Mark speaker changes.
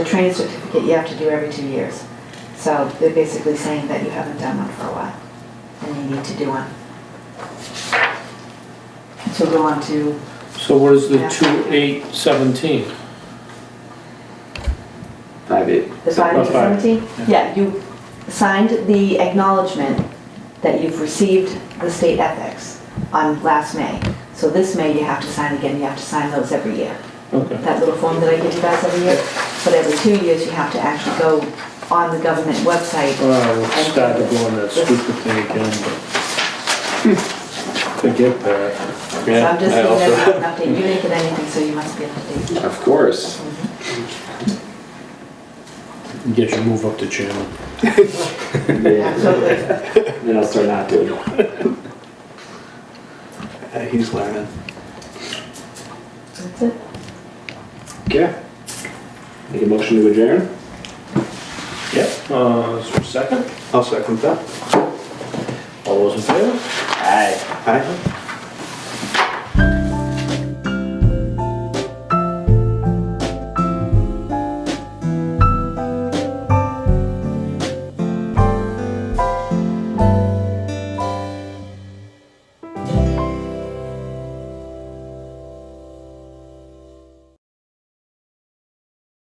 Speaker 1: The training certificate you have to do every two years. So they're basically saying that you haven't done one for a while, and you need to do one. So go on to,
Speaker 2: So what is the
Speaker 1: Yeah.
Speaker 2: two eight seventeen?
Speaker 3: Five eight.
Speaker 1: the five
Speaker 2: Oh,
Speaker 1: to
Speaker 2: five.
Speaker 1: seventeen? Yeah, you signed the acknowledgement that you've received the state ethics on last May. So this May, you have to sign again, you have to sign those every year.
Speaker 2: Okay,
Speaker 1: that little form that I give you guys every year, but every two years you have to actually go on the government website.
Speaker 2: well, we'll start to go on that stupid thing again, but forget that.
Speaker 1: So I'm just giving everyone an update, you didn't get anything, so you must be up to date.
Speaker 3: Of course.
Speaker 2: Get your move up to chairman.
Speaker 3: Yeah.
Speaker 1: Absolutely.
Speaker 3: Then I'll start not doing it.
Speaker 4: Yeah, he's learning.
Speaker 1: That's it.
Speaker 3: Okay. Make a motion to adjourn?
Speaker 2: Yep. Uh, is there a second?
Speaker 4: I'll second that.
Speaker 2: All those in favor?
Speaker 3: Aye.
Speaker 4: Aye.